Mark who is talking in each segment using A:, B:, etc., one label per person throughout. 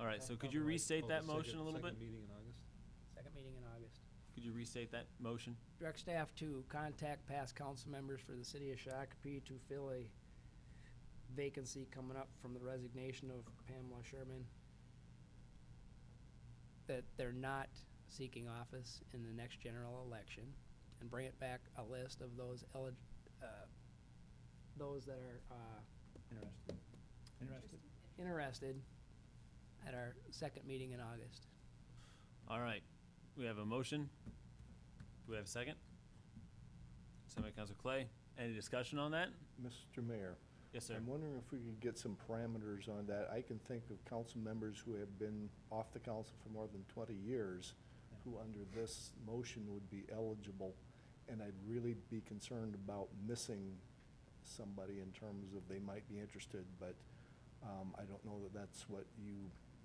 A: All right, so could you restate that motion a little bit?
B: meeting in August?
C: Second meeting in August.
A: Could you restate that motion?
C: Direct staff to contact past council members for the city of Shakopee to fill a vacancy coming up from the resignation of Pamela Sherman. That they're not seeking office in the next general election and bring it back a list of those elig, uh, those that are, uh,
D: Interested. Interested.
C: interested at our second meeting in August.
A: All right, we have a motion. Do we have a second? Second by Council Clay. Any discussion on that?
D: Mr. Mayor,
A: Yes, sir.
D: I'm wondering if we could get some parameters on that. I can think of council members who have been off the council for more than 20 years, who under this motion would be eligible, and I'd really be concerned about missing somebody in terms of they might be interested, but um, I don't know that that's what you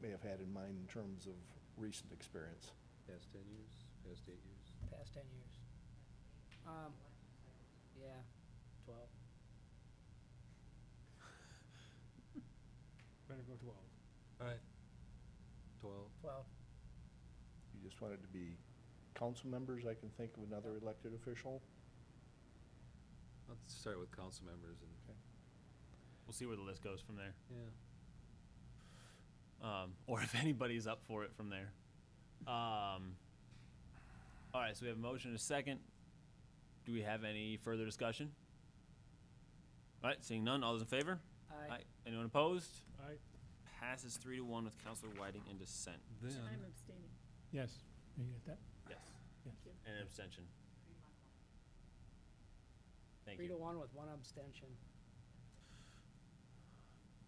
D: may have had in mind in terms of recent experience.
B: Past ten years, past eight years.
C: Past ten years. Um, yeah, twelve.
E: Better go twelve.
B: All right. Twelve.
C: Twelve.
D: You just want it to be council members, I can think of another elected official.
B: Let's start with council members and,
A: We'll see where the list goes from there,
B: yeah.
A: um, or if anybody's up for it from there. Um, all right, so we have a motion and a second. Do we have any further discussion? All right, seeing none, all those in favor?
C: I
A: Anyone opposed?
E: I,
A: Passes three to one with Counselor Whiting in dissent.
F: I'm
B: Then,
F: abstaining.
E: yes, you get that?
A: Yes.
E: Yes.
F: you.
A: And an abstention. Thank
C: Three to
A: you.
C: one with one abstention.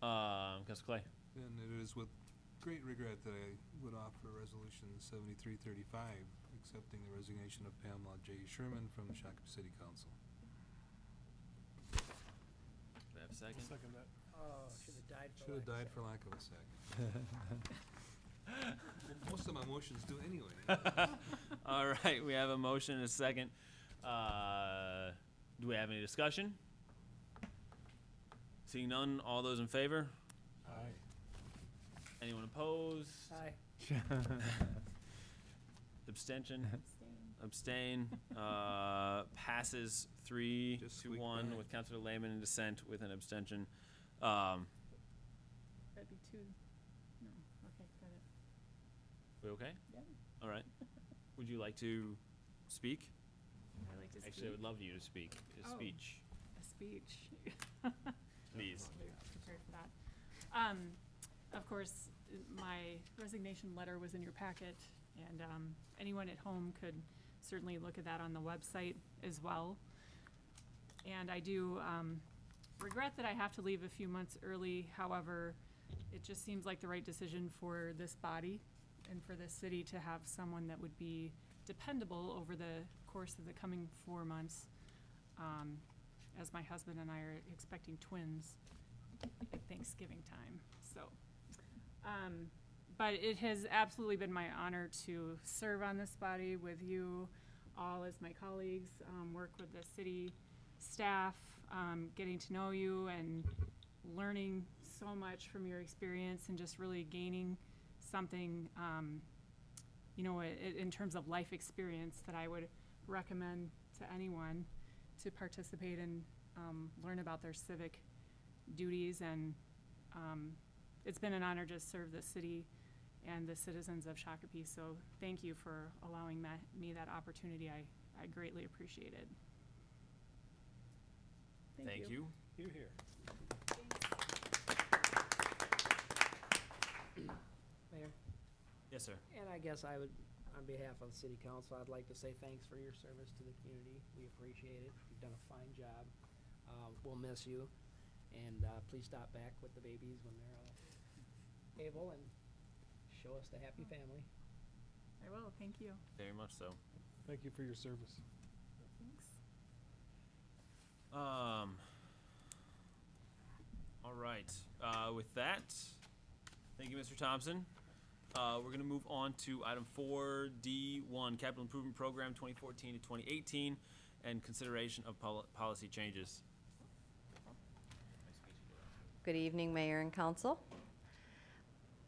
A: Um, Counselor Clay.
G: And it is with great regret that I would offer Resolution 7335, accepting the resignation of Pamela J. Sherman from the Shakopee City Council.
A: Do I have a second?
E: Second that.
C: Oh, should have died for
G: Should have died for lack of a second. Well, Most of my motions do anyway.
A: All right, we have a motion and a second. Uh, do we have any discussion? Seeing none, all those in favor?
E: I,
A: Anyone opposed?
C: Aye.
A: Abstention?
F: Abstaining.
A: Abstain? Uh, passes three
G: Just
A: to
G: squeaked
A: one
G: by.
A: with Counselor Lehman in dissent with an abstention. Um,
F: That'd be two. No, okay, got it.
A: we okay?
F: Yeah,
A: All right. Would you like to speak?
F: I like to speak.
A: Actually, I would love you to speak, a
F: Oh.
A: speech,
F: A speech.
A: please.
F: We were Prepared for that. Um, of course, uh, my resignation letter was in your packet, and, um, anyone at home could certainly look at that on the website as well. And I do, um, regret that I have to leave a few months early, however, it just seems like the right decision for this body and for this city to have someone that would be dependable over the course of the coming four months. Um, as my husband and I are expecting twins at Thanksgiving time, so. Um, but it has absolutely been my honor to serve on this body with you all as my colleagues, um, work with the city staff, um, getting to know you and learning so much from your experience and just really gaining something, um, you know, i- i- in terms of life experience that I would recommend to anyone to participate and um, learn about their civic duties. And um, it's been an honor to serve the city and the citizens of Shakopee. So thank you for allowing ma- me that opportunity. I, I greatly appreciate it.
A: Thank you.
E: Here, here.
C: Mayor,
A: Yes, sir.
C: and I guess I would, on behalf of the city council, I'd like to say thanks for your service to the community. We appreciate it. You've done a fine job. Uh, we'll miss you. And, uh, please stop back with the babies when they're all able and show us the happy family.
F: I will, thank you.
A: Very much so.
E: Thank you for your service.
F: Thanks.
A: Um, all right. Uh, with that, thank you, Mr. Thompson. Uh, we're going to move on to item 4D1 Capital Improvement Program 2014 to 2018 and consideration of pol- policy changes.
H: Good evening, Mayor and Council.